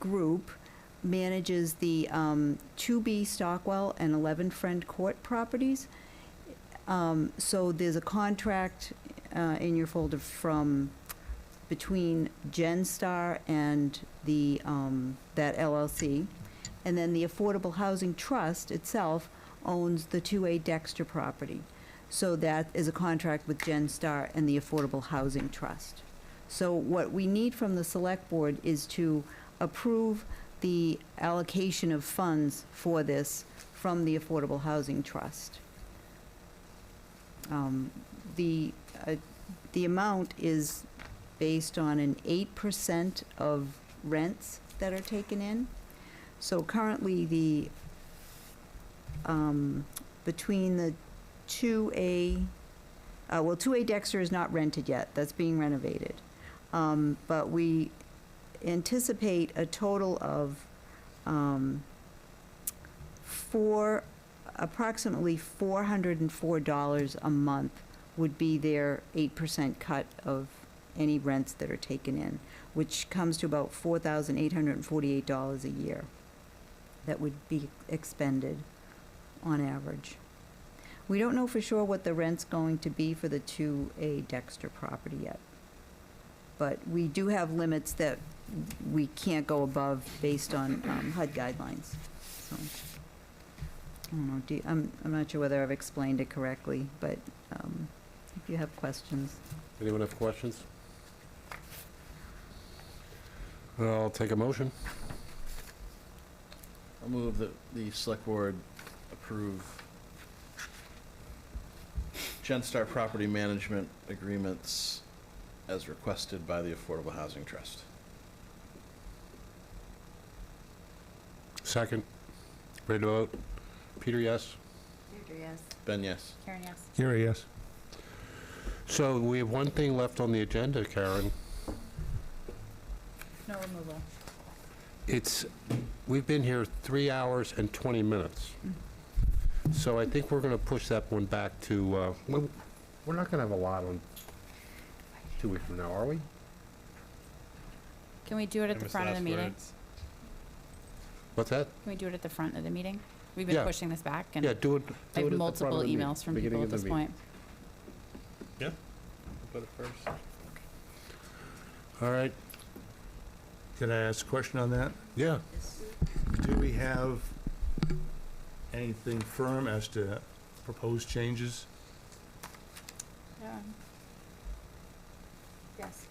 group manages the um, 2B Stockwell and 11 Friend Court properties. Um, So there's a contract uh, in your folder from, between GenStar and the, um, that LLC. And then the Affordable Housing Trust itself owns the 2A Dexter property. So that is a contract with GenStar and the Affordable Housing Trust. So what we need from the Select Board is to approve the allocation of funds for this from the Affordable Housing Trust. Um, The, uh, the amount is based on an 8% of rents that are taken in. So currently, the, um, between the 2A, uh, well, 2A Dexter is not rented yet, that's being renovated. Um, But we anticipate a total of um, four, approximately $404 a month would be their 8% cut of any rents that are taken in, which comes to about $4,848 a year that would be expended on average. We don't know for sure what the rent's going to be for the 2A Dexter property yet. But we do have limits that we can't go above based on um, HUD guidelines, so. I don't know, do, you- I'm, I'm not sure whether I've explained it correctly, but um, if you have questions. Anyone have questions? I'll take a motion. I'll move that the select board approve GenStar Property Management Agreements as requested by the Affordable Housing Trust. Second. Ready to vote? Peter, yes? Deirdre, yes. Ben, yes. Karen, yes. Gary, yes. So we have one thing left on the agenda, Karen. No removal. It's, we've been here three hours and 20 minutes. So I think we're going to push that one back to, uh, we- we're not going to have a lot on two weeks from now, are we? Can we do it at the front of the meeting? What's that? Can we do it at the front of the meeting? We've Yeah. been pushing this back, Yeah, and do it. do I it at have the multiple front of the meeting, emails from beginning people of at the this meeting. point. Put it first. All right, Can I ask a question on that? yeah. Do we have anything firm as to proposed changes? Yes.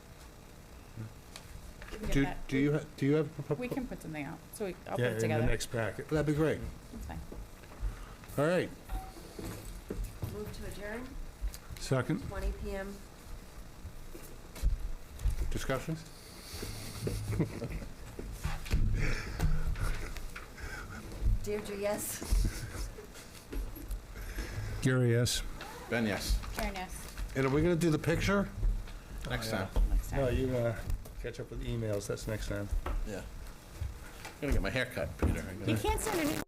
Do do you, ha- do you have? a propo- We can put something out, so we, I'll put Yeah, it In the together. next packet. That'd be great. It's fine. All right. Move to adjourn, Second? 20 PM. Discussion? Deirdre, yes? Gary, yes. Ben, yes. Karen, yes. And are we going to do the picture? Next yeah. time. Next No, time. you, uh, catch up with emails, that's next time. Yeah. I'm gonna get my hair cut, Peter. I'm You gonna- can't send it.